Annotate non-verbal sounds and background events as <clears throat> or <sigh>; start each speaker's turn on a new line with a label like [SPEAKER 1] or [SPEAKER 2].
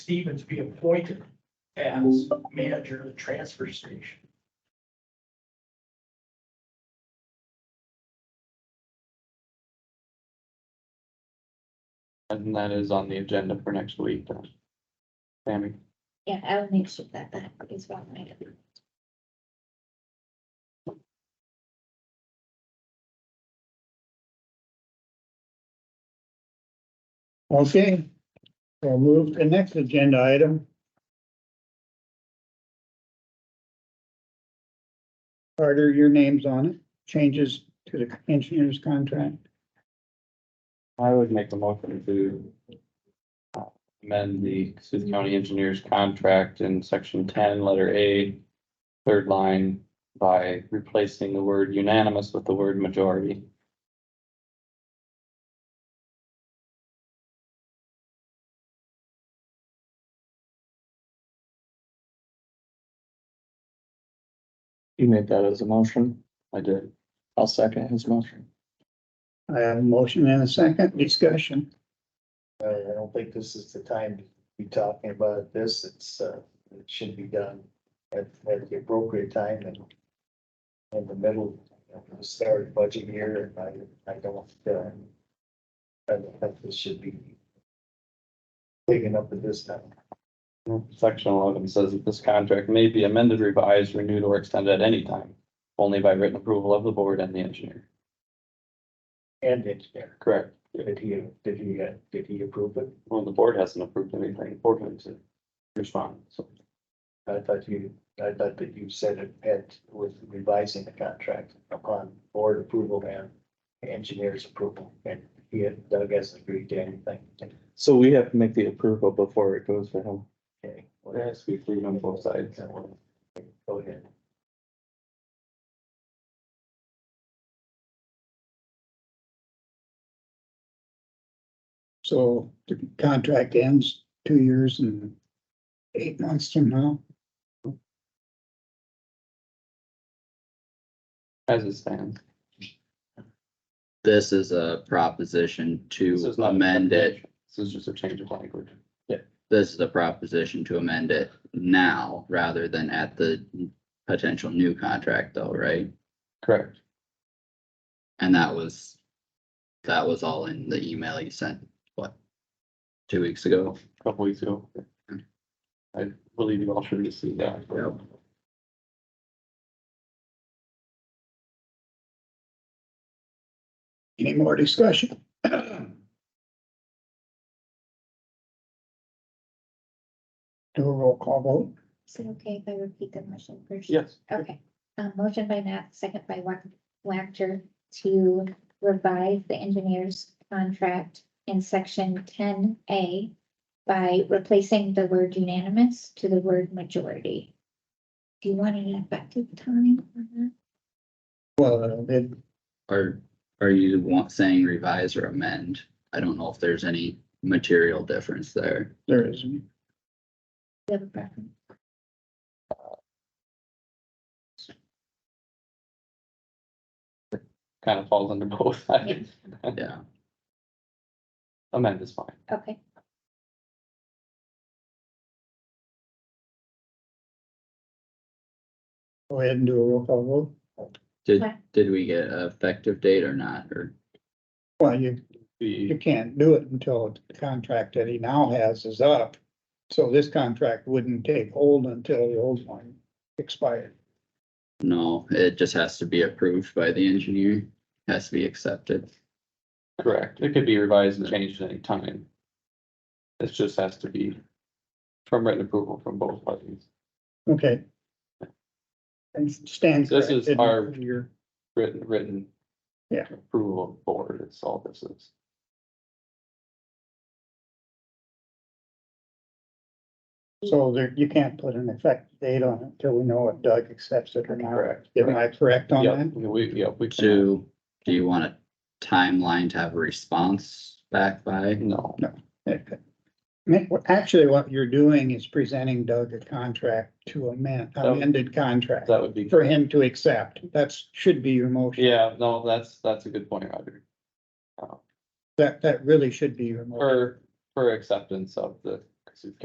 [SPEAKER 1] Stevens be appointed as manager of the transfer station.
[SPEAKER 2] And that is on the agenda for next week. then. Sammy,
[SPEAKER 3] Yeah, I'll make sure that that is one item.
[SPEAKER 4] Okay, we'll move to the next agenda item. Carter, your name's on it, changes to the engineer's contract.
[SPEAKER 2] I would make a motion to uh, amend the Cassuth County Engineers Contract in section ten, letter A, third line, by replacing the word unanimous with the word majority. You made that as a motion? I did. I'll second his motion.
[SPEAKER 4] I have a motion and a second discussion.
[SPEAKER 5] I, I don't think this is the time to be talking about this. It's, uh, it should be done at, at the appropriate time and in the middle of the start budget year, and I, I don't, uh, I don't think this should be taken up at this time.
[SPEAKER 2] Section eleven says that this contract may be amended, revised, renewed, or extended at any time, only by written approval of the board and the engineer.
[SPEAKER 5] And engineer,
[SPEAKER 2] Correct.
[SPEAKER 5] did he, did he, uh, did he approve it?
[SPEAKER 2] Well, the board hasn't approved anything for him to respond, so.
[SPEAKER 5] I thought you, I thought that you said it had with revising the contract upon board approval and engineer's approval, and he had, Doug hasn't agreed to anything.
[SPEAKER 2] So we have to make the approval before it goes to him.
[SPEAKER 5] Okay, well,
[SPEAKER 2] There has to be agreement on both sides.
[SPEAKER 5] Go ahead.
[SPEAKER 4] So the contract ends two years and eight months from now.
[SPEAKER 2] As it stands.
[SPEAKER 6] This is a proposition
[SPEAKER 2] This
[SPEAKER 6] to
[SPEAKER 2] is not-
[SPEAKER 6] amend it.
[SPEAKER 2] This is just a change of language.
[SPEAKER 6] This is a proposition to amend it now rather than at the potential new contract though, right?
[SPEAKER 2] Correct.
[SPEAKER 6] And that was, that was all in the email you sent, what? Two weeks ago?
[SPEAKER 2] A Couple weeks ago. I believe you all should receive that.
[SPEAKER 6] Yep.
[SPEAKER 4] Any more discussion? <clears throat> Do a roll call vote.
[SPEAKER 3] Is it okay if I repeat the motion first?
[SPEAKER 2] Yes.
[SPEAKER 3] Okay, um, motion by Nat, second by Wac- Wactor to revise the engineer's contract in section ten A by replacing the word unanimous to the word majority. Do you want an effective time on that?
[SPEAKER 4] Well, uh, it
[SPEAKER 6] Are, are you want, saying revise or amend? I don't know if there's any material difference there.
[SPEAKER 4] there isn't.
[SPEAKER 3] Do you have a preference?
[SPEAKER 2] Kind of falls under both sides.
[SPEAKER 6] Yeah.
[SPEAKER 2] Amend is fine.
[SPEAKER 3] Okay,
[SPEAKER 4] Go ahead and do a roll call vote.
[SPEAKER 6] Did,
[SPEAKER 3] Okay.
[SPEAKER 6] did we get an effective date or not? Or,
[SPEAKER 4] Well, you,
[SPEAKER 2] The
[SPEAKER 4] you can't do it until the contract that he now has is up. So this contract wouldn't take hold until the old one expired.
[SPEAKER 6] no, it just has to be approved by the engineer, has to be accepted.
[SPEAKER 2] Correct, it could be revised and changed at any time. It just has to be from written approval from both parties,
[SPEAKER 4] Okay. And stands.
[SPEAKER 2] This is
[SPEAKER 4] corrected.
[SPEAKER 2] our-
[SPEAKER 4] Your-
[SPEAKER 2] written, written.
[SPEAKER 4] Yeah.
[SPEAKER 2] Approval of board, it's all this is.
[SPEAKER 4] So there, you can't put an effective date on it until we know if Doug accepts it or not.
[SPEAKER 2] Correct.
[SPEAKER 4] Am I correct on
[SPEAKER 2] Yep,
[SPEAKER 4] that?
[SPEAKER 2] we, yep, we can,
[SPEAKER 6] Do, do you want a timeline to have a response back by?
[SPEAKER 2] no,
[SPEAKER 4] Okay. Ma- well, Actually, what you're doing is presenting Doug a contract to amend,
[SPEAKER 2] Oh.
[SPEAKER 4] amended contract
[SPEAKER 2] that would be,
[SPEAKER 4] for him to accept. That's, should be your motion.
[SPEAKER 2] yeah, no, that's, that's a good point, Roger.
[SPEAKER 4] That, that really should be your motion.
[SPEAKER 2] For, for acceptance of the Cassuth